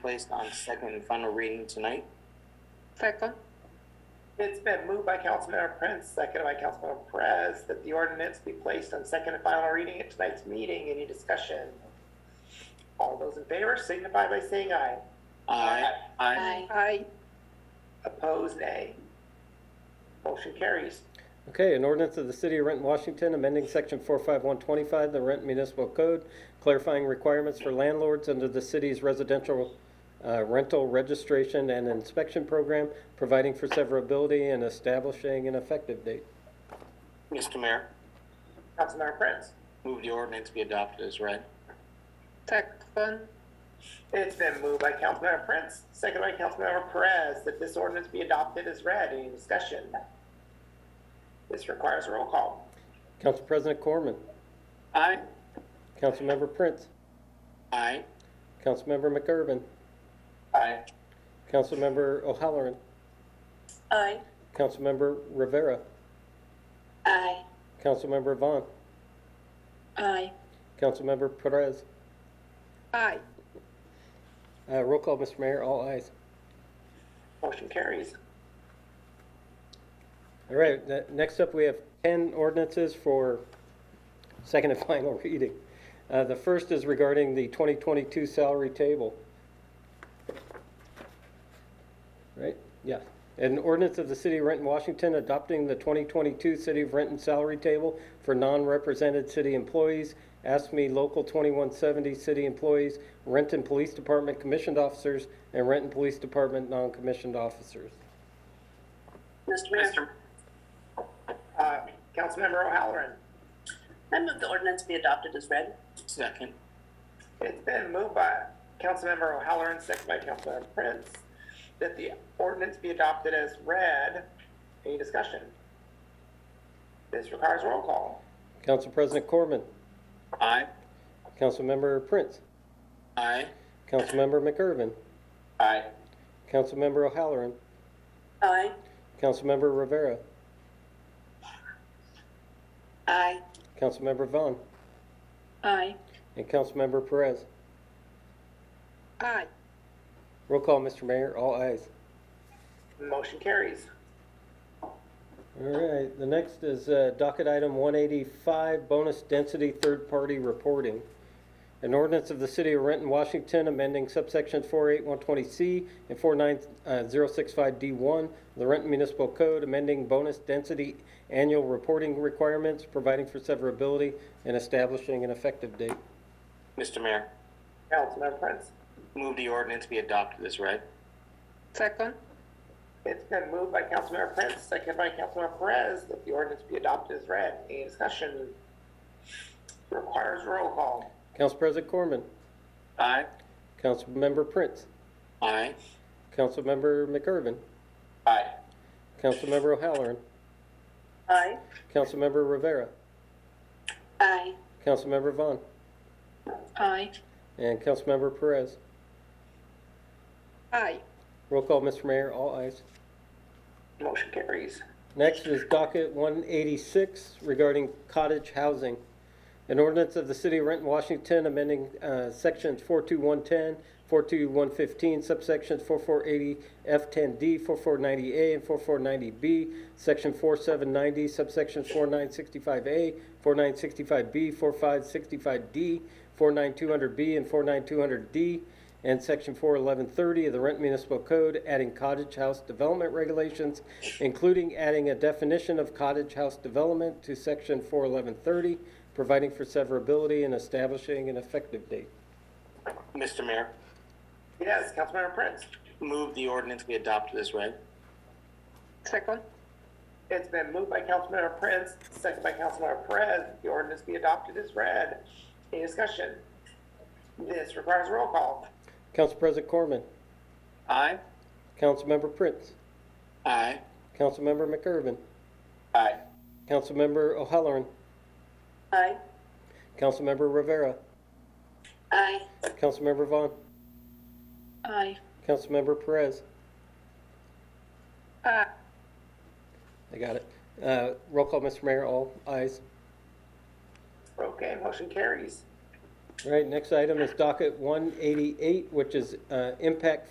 placed on second and final reading tonight. Second. It's been moved by Councilmember Prince, seconded by Councilmember Perez, that the ordinance be placed on second and final reading at tonight's meeting. Any discussion? All those in favor signify by saying aye. Aye. Aye. Aye. Opposed, nay. Motion carries. Okay, an ordinance of the City of Renton, Washington, amending Section 45125 of the Renton Municipal Code, clarifying requirements for landlords under the city's residential uh, rental registration and inspection program, providing for severability and establishing an effective date. Mr. Mayor, Councilmember Prince. move the ordinance be adopted as read. Second. It's been moved by Councilmember Prince, seconded by Councilmember Perez, that this ordinance be adopted as read. Any discussion? This requires a roll call. Council President Corman, Aye. Councilmember Prince, Aye. Councilmember McGurven, Aye. Councilmember O'Halloran, Aye. Councilmember Rivera, Aye. Councilmember Vaughn, Aye. Councilmember Perez. Aye. Uh, Roll call, Mr. Mayor, all ayes. Motion carries. All right, the- next up, we have 10 ordinances for second and final reading. Uh, The first is regarding the 2022 salary table. Right, yeah. An ordinance of the City of Renton, Washington, adopting the 2022 City of Renton salary table for non-represented city employees, ASME Local 2170 city employees, Renton Police Department commissioned officers, and Renton Police Department non-commissioned officers. Mr. Mayor, Uh, Councilmember O'Halloran. I move the ordinance be adopted as read. Second. It's been moved by Councilmember O'Halloran, second by Councilmember Prince, that the ordinance be adopted as read. Any discussion? This requires roll call. Council President Corman? Aye. Councilmember Prince, Aye. Councilmember McGurven, Aye. Councilmember O'Halloran, Aye. Councilmember Rivera, Aye. Councilmember Vaughn, Aye. and Councilmember Perez. Aye. Roll call, Mr. Mayor, all ayes. Motion carries. All right, the next is uh, docket item 185, bonus density third-party reporting. An ordinance of the City of Renton, Washington, amending subsections 48120C and uh, 49065D1 of the Renton Municipal Code, amending bonus density annual reporting requirements, providing for severability, and establishing an effective date. Mr. Mayor, Councilmember Prince. move the ordinance be adopted as read. Second. It's been moved by Councilmember Prince, second by Councilmember Perez, that the ordinance be adopted as read. Any discussion? Requires roll call. Council President Corman, Aye. Councilmember Prince, Aye. Councilmember McGurven, Aye. Councilmember O'Halloran, Aye. Councilmember Rivera, Aye. Councilmember Vaughn, Aye. and Councilmember Perez. Aye. Roll call, Mr. Mayor, all ayes. Motion carries. Next is docket 186 regarding cottage housing. An ordinance of the City of Renton, Washington, amending uh, sections 42110, 42115, subsections 4480F10D, 4490A, and 4490B, section 4790, subsection 4965A, 4965B, 4565D, 49200B, and 49200D, and Section 41130 of the Rent Municipal Code, adding cottage house development regulations, including adding a definition of cottage house development to Section 41130, providing for severability and establishing an effective date. Mr. Mayor, Yes, Councilmember Prince. move the ordinance be adopted as read. Second. It's been moved by Councilmember Prince, second by Councilmember Perez, that the ordinance be adopted as read. Any discussion? This requires roll call. Council President Corman, Aye. Councilmember Prince, Aye. Councilmember McGurven, Aye. Councilmember O'Halloran, Aye. Councilmember Rivera, Aye. Councilmember Vaughn, Aye. Councilmember Perez. Aye. I got it. Uh, Roll call, Mr. Mayor, all ayes. Okay, motion carries. All right, next item is docket 188, which is uh, impact